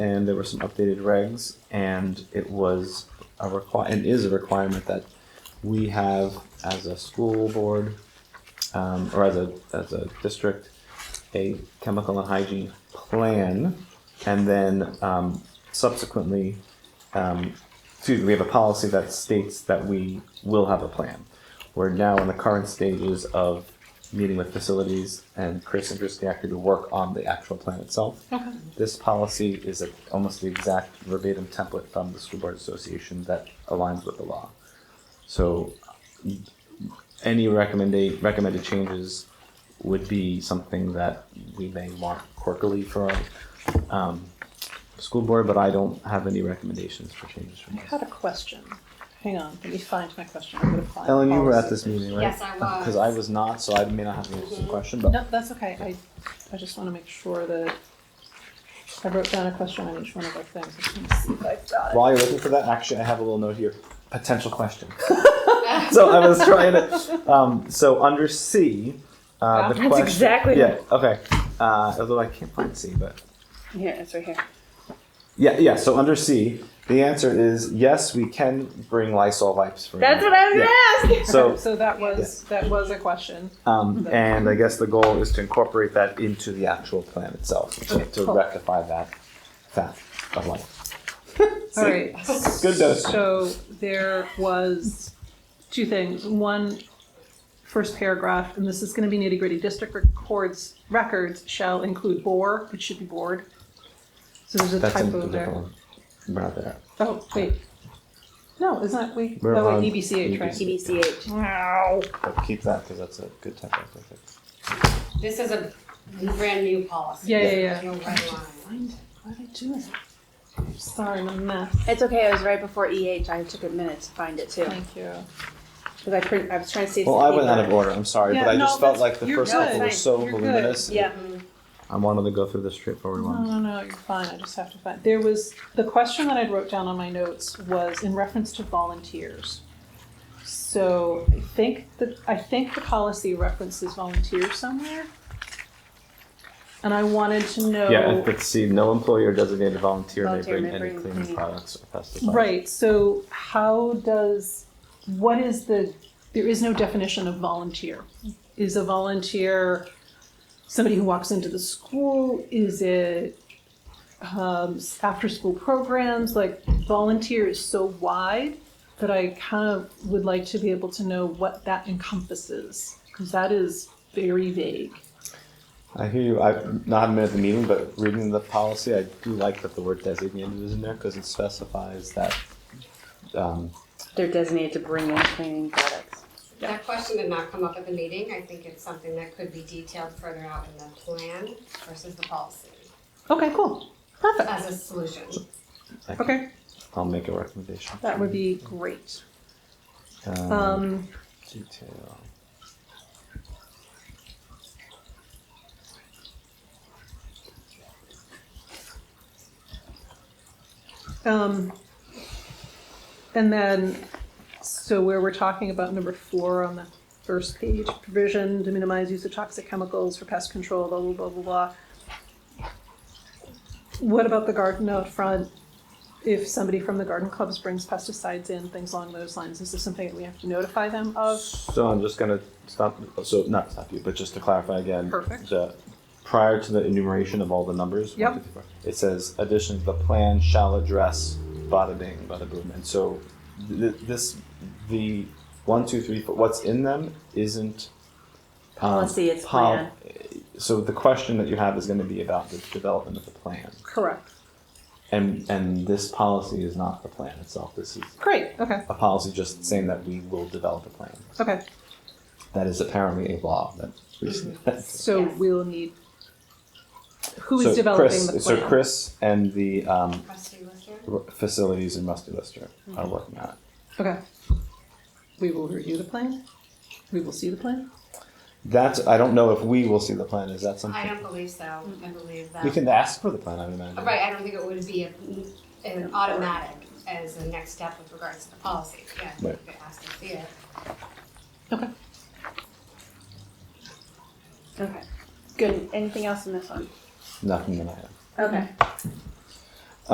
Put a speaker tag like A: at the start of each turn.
A: and there were some updated regs, and it was a require, and is a requirement that we have as a school board, um, or as a, as a district, a chemical and hygiene plan, and then, um, subsequently, um, excuse me, we have a policy that states that we will have a plan. We're now in the current stages of meeting with facilities and Chris and Christie actually to work on the actual plan itself. This policy is a, almost the exact verbatim template from the School Board Association that aligns with the law. So any recommended, recommended changes would be something that we may want quirkily for our, um, school board, but I don't have any recommendations for changes from
B: I
A: this.
B: had a question. Hang on, let me find my question. I'm gonna find.
A: Ellen, you were at
B: policy.
A: this meeting, right?
C: Yes, I was.
A: Because I was not, so I may not have the answer to the question, but.
B: No, that's okay. I, I just wanna make sure that I wrote down a question on each one of our things. I just wanna see if I've got it.
A: While you're looking for that, actually, I have a little note here. Potential question. so I was trying to. Um, so under C, uh, the
D: That's
A: question.
D: exactly-
A: Yeah. Okay. Uh, although I can't find C, but
D: Here, it's right here.
A: yeah, yeah. So under C, the answer is yes. We can bring Lysol wipes for.
D: That's what I was
A: Yeah.
D: gonna ask.
A: So
B: So that was, that was a question.
A: Um, and I guess the goal is to incorporate that into the actual plan itself
D: Oh,
A: to, to
B: cool.
A: rectify that fact of life.
B: All right.
A: Good dose.
B: So there was two things. One, first paragraph, and this is gonna be nitty gritty. District records, records shall include bore, it should be board. So there's a
A: That's in
B: typo
A: the
B: there.
A: different one. We're not there.
B: Oh, wait. No, isn't that, we,
A: We're
B: oh,
A: on E
B: wait, EBCH, right?
C: TBCH.
B: Wow.
A: But keep that because that's a good type of thing.
C: This is a brand new policy.
B: Yeah, yeah, yeah.
C: No red line.
B: What did I do? Sorry, I'm a mess.
D: It's okay. It was right before EH. I took a minute to find it too
B: Thank you.
D: because I print, I was trying to see. if
A: Well,
D: the
A: I went out of
D: paper-
A: order. I'm sorry,
B: Yeah,
A: but I
B: no,
A: just felt
B: that's-
A: like the
B: you're
A: first
B: good.
A: couple were so
B: You're good.
A: voluminous.
D: Yeah.
A: I wanted to go through the straightforward
B: No,
A: ones.
B: no, no, you're fine. I just have to find, there was, the question that I wrote down on my notes was in reference to volunteers. So I think the, I think the policy references volunteers somewhere. And I wanted to know.
A: Yeah, it- but see, no employee or designated volunteer may
D: Volunteer
A: bring
D: may
A: any
D: bring
A: cleaning
D: any-
A: products or pesticides.
B: Right, so how does, what is the, there is no definition of volunteer. Is a volunteer somebody who walks into the school? Is it um, after-school programs? Like volunteer is so wide that I kind of would like to be able to know what that encompasses, because that is very vague.
A: I hear you. I've not been at the meeting, but reading the policy, I do like that the word designated is in there because it specifies that. Um,
D: They're designated to bring in cleaning products.
C: That question did not come up at the meeting. I think it's something that could be detailed further out in the plan versus the policy
B: Okay, cool, perfect.
C: as a solution.
A: I-
B: Okay,
A: I'll make a recommendation.
B: that would be great.
A: Um,
B: Um,
A: detail.
B: Um, and then, so where we're talking about number four on the first page, provision to minimize use of toxic chemicals for pest control, blah, blah, blah, blah, blah. What about the garden out front? If somebody from the garden clubs brings pesticides in, things along those lines, is this something that we have to notify them of?
A: So I'm just gonna stop, so not stop you, but just to clarify again.
B: Perfect.
A: The, prior to the enumeration of all the numbers. one,
B: Yep.
A: two, three, four, It says, additionally, the plan shall address bada bing, bada boom, and so th- th- this, the one, two, three, four, what's in them isn't. um,
D: Policy, it's
A: pol-
D: plan.
A: So the question that you have is gonna be about the development of the plan,
B: Correct.
A: and, and this policy is not the plan itself, this is
B: Great, okay,
A: a policy just saying that we will develop a plan.
B: okay.
A: That is apparently a law that who's
B: So
C: Yes.
B: we'll need, who is developing
A: Chris,
B: the plan?
A: So Chris and the um,
C: Trustee Lister?
A: r- facilities in Rusty Lister
B: Mm-hmm.
A: are working on it.
B: Okay. We will review the plan. We will see the plan.
A: That's I don't know if we will see the plan. Is that something
C: I don't believe so. I believe that.
A: we can ask for the plan? I would imagine.
C: Right, I don't think it would be a- an automatic as a next step with regards to the policy. Yeah, you
A: Right.
C: could ask to see it.
B: Okay.
D: Okay. Good. Anything else in this one?
A: Nothing that I have.
D: Okay.